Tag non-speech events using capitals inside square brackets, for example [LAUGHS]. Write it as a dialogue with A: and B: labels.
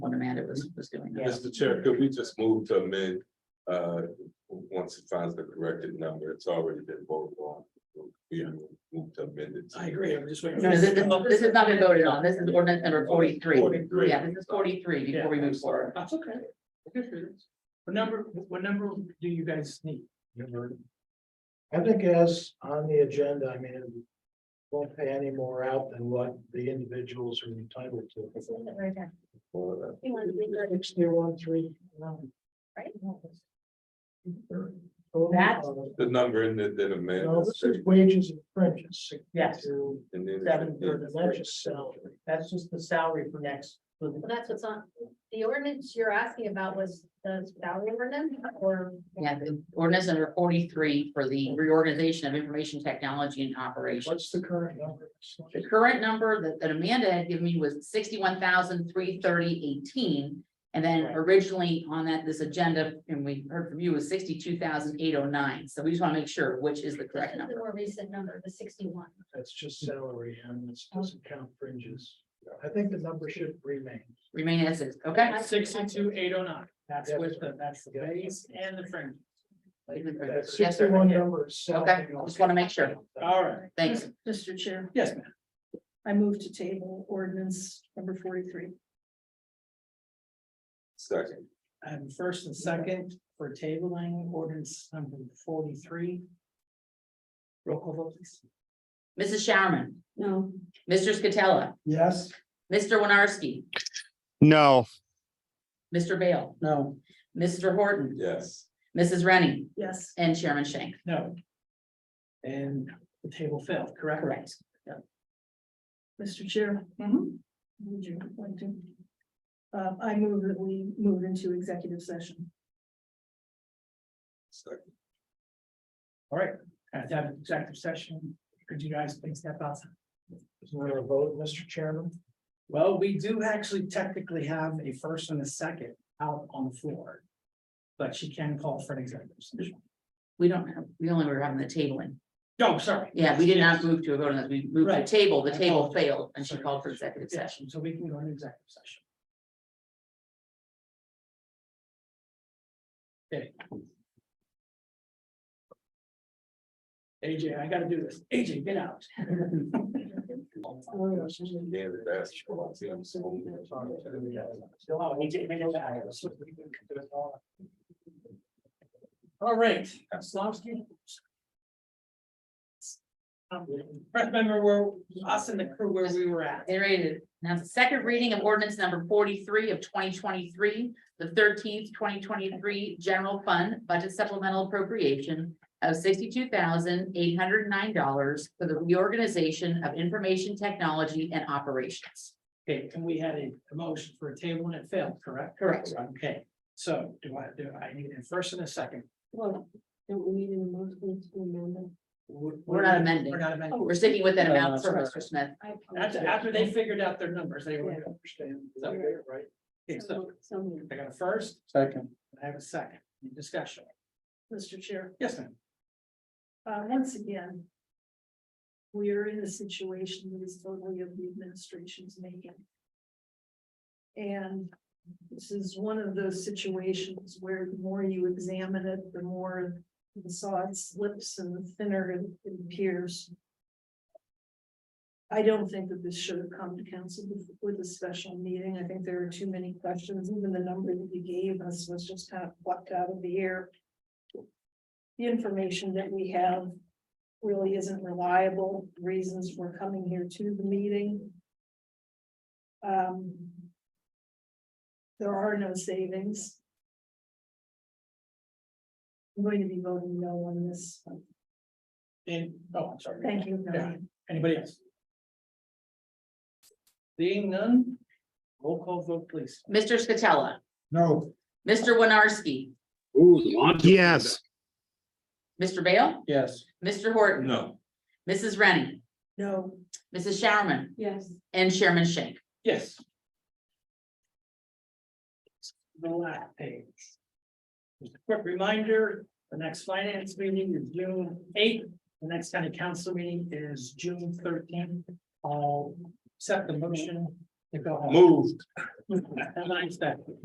A: Amanda was, was doing.
B: Yeah.
C: Mr. Chair, could we just move to amend, uh, once it finds the corrected number, it's already been voted on. We move to amend it.
D: I agree, I'm just Oh, waiting.
A: No, this, this- this has not been voted on. This is ordinance number forty-three.
C: 43.
A: Yeah, this is forty-three before we move forward.
D: That's okay. Good for you. What number, what number do you guys need?
E: I think as on the agenda, I mean, it won't pay any more out than what the individuals are entitled to.
F: Just leave it right there.
C: Well,
F: You want to leave it-
E: Sixty one, three. nine. Oh,
F: Right.
B: That's-
E: No,
C: The number in the, then amend.
E: this is wages and fringes.
B: Yes.
E: 62,
C: And then-
B: Seven thirty.
E: and That's just salary.
B: That's just the salary for next. for the-
F: Well, That's what's on, the ordinance you're asking about was the salary ordinance or?
A: Yeah, the ordinance number forty-three for the reorganization of information technology and operations.
E: What's the current number?
A: The current number that, that Amanda had given me was sixty-one thousand three thirty eighteen. And then
B: Right.
A: originally on that, this agenda, and we heard from you, was sixty-two thousand eight oh nine. So we just want to make sure which is the
F: This
A: correct
F: is the
A: number.
F: more recent number, the sixty-one.
E: That's just salary and this
A: Oh.
E: doesn't count fringes. I think the number should remain.
A: Remain as is, okay?
B: Sixty-two, eight oh nine, that's
E: Yes.
B: with the, that's the base and the fringe.
E: That
A: Yes, sir.
E: sixty-one number is
A: Okay,
E: salary.
A: just wanna make sure.
B: All right,
A: Thanks.
G: Mr. Chair,
B: yes, ma'am.
G: I move to table ordinance number forty-three.
C: Second,
B: And first and second for tabling ordinance number forty-three. Roll call vote, please.
A: Mrs. Showerman,
G: No.
A: Mr. Scatella,
D: Yes.
A: Mr. Winarski,
H: No,
A: Mr. Bale,
B: No.
A: Mr. Horton.
C: yes,
A: Mrs. Rennie
G: Yes,
A: and Chairman Shank,
B: No. And the table failed, correct?
A: correct?
G: Mr. Chair. Would you like to? Uh, I move that we move into executive session.
C: second,
B: All right, at that executive session, could you guys please step outside?
E: Is there a vote, Mr. Chairman?
B: Well, we do actually technically have a first and a second out on the floor. But she can call for an executive session.
A: We don't have, we only were having the tabling.
B: No, sorry.
A: Yeah, we did not move to a vote on this. We moved to
B: Right.
A: table. The
B: I
A: table
B: apologize.
A: failed and she called for executive session.
B: Session, so we can go into executive session. Okay. AJ, I gotta do this. AJ, get out.
C: yeah, that's.
B: Oh, AJ, man, you're back. All right, Slavsky. Um, Remember where us and the crew where we were at.
A: Iterated. Now, the second reading of ordinance number forty-three of twenty twenty-three, the thirteenth, twenty twenty-three general fund budget supplemental appropriation of sixty-two thousand eight hundred nine dollars for the reorganization of information technology and operations.
B: Okay, and we had a a motion for a table and it failed, correct?
A: Correct.
B: Okay, so do I, do I need a first and a second?
G: Well, don't we need a motion to amend Oh,
A: We're not amending.
B: We're not amending.
A: Oh, We're sticking with that amount
B: Uh,
A: for Mr. Smith.
B: After, after they figured out their numbers, they were.
E: Understand,
B: Is that fair,
E: right?
B: Okay, so I got a first,
D: Second.
B: I have a second, Any discussion.
G: Mr. Chair,
B: Yes, ma'am.
G: uh, once again. We are in a situation that is totally of the administration's making. And this is one of those situations where the more you examine it, the more the sod slips and the thinner it- it appears. I don't think that this should have come to council with- with a special meeting. I think there are too many questions. Even the number that you gave us was just kind of plucked out of the air. The information that we have really isn't reliable. Reasons for coming here to the meeting. Um, There are no savings. I'm going to be voting no on this.
B: And, oh, I'm sorry.
G: Thank you. Melanie.
B: Anybody else? Seeing none, roll call vote, please.
A: Mr. Scatella,
D: No.
A: Mr. Winarski,
H: yes.
A: Mr. Bale,
D: Yes.
A: Mr. Horton.
C: No,
A: Mrs. Rennie,
G: No.
A: Mrs. Showerman,
G: Yes.
A: and Chairman Shank.
B: Yes. The last page. Just a quick reminder, the next finance meeting is June eighth, the next county council meeting is June thirteenth. I'll set the motion to go home.
C: Moved.
B: [LAUGHS] Have a nice day.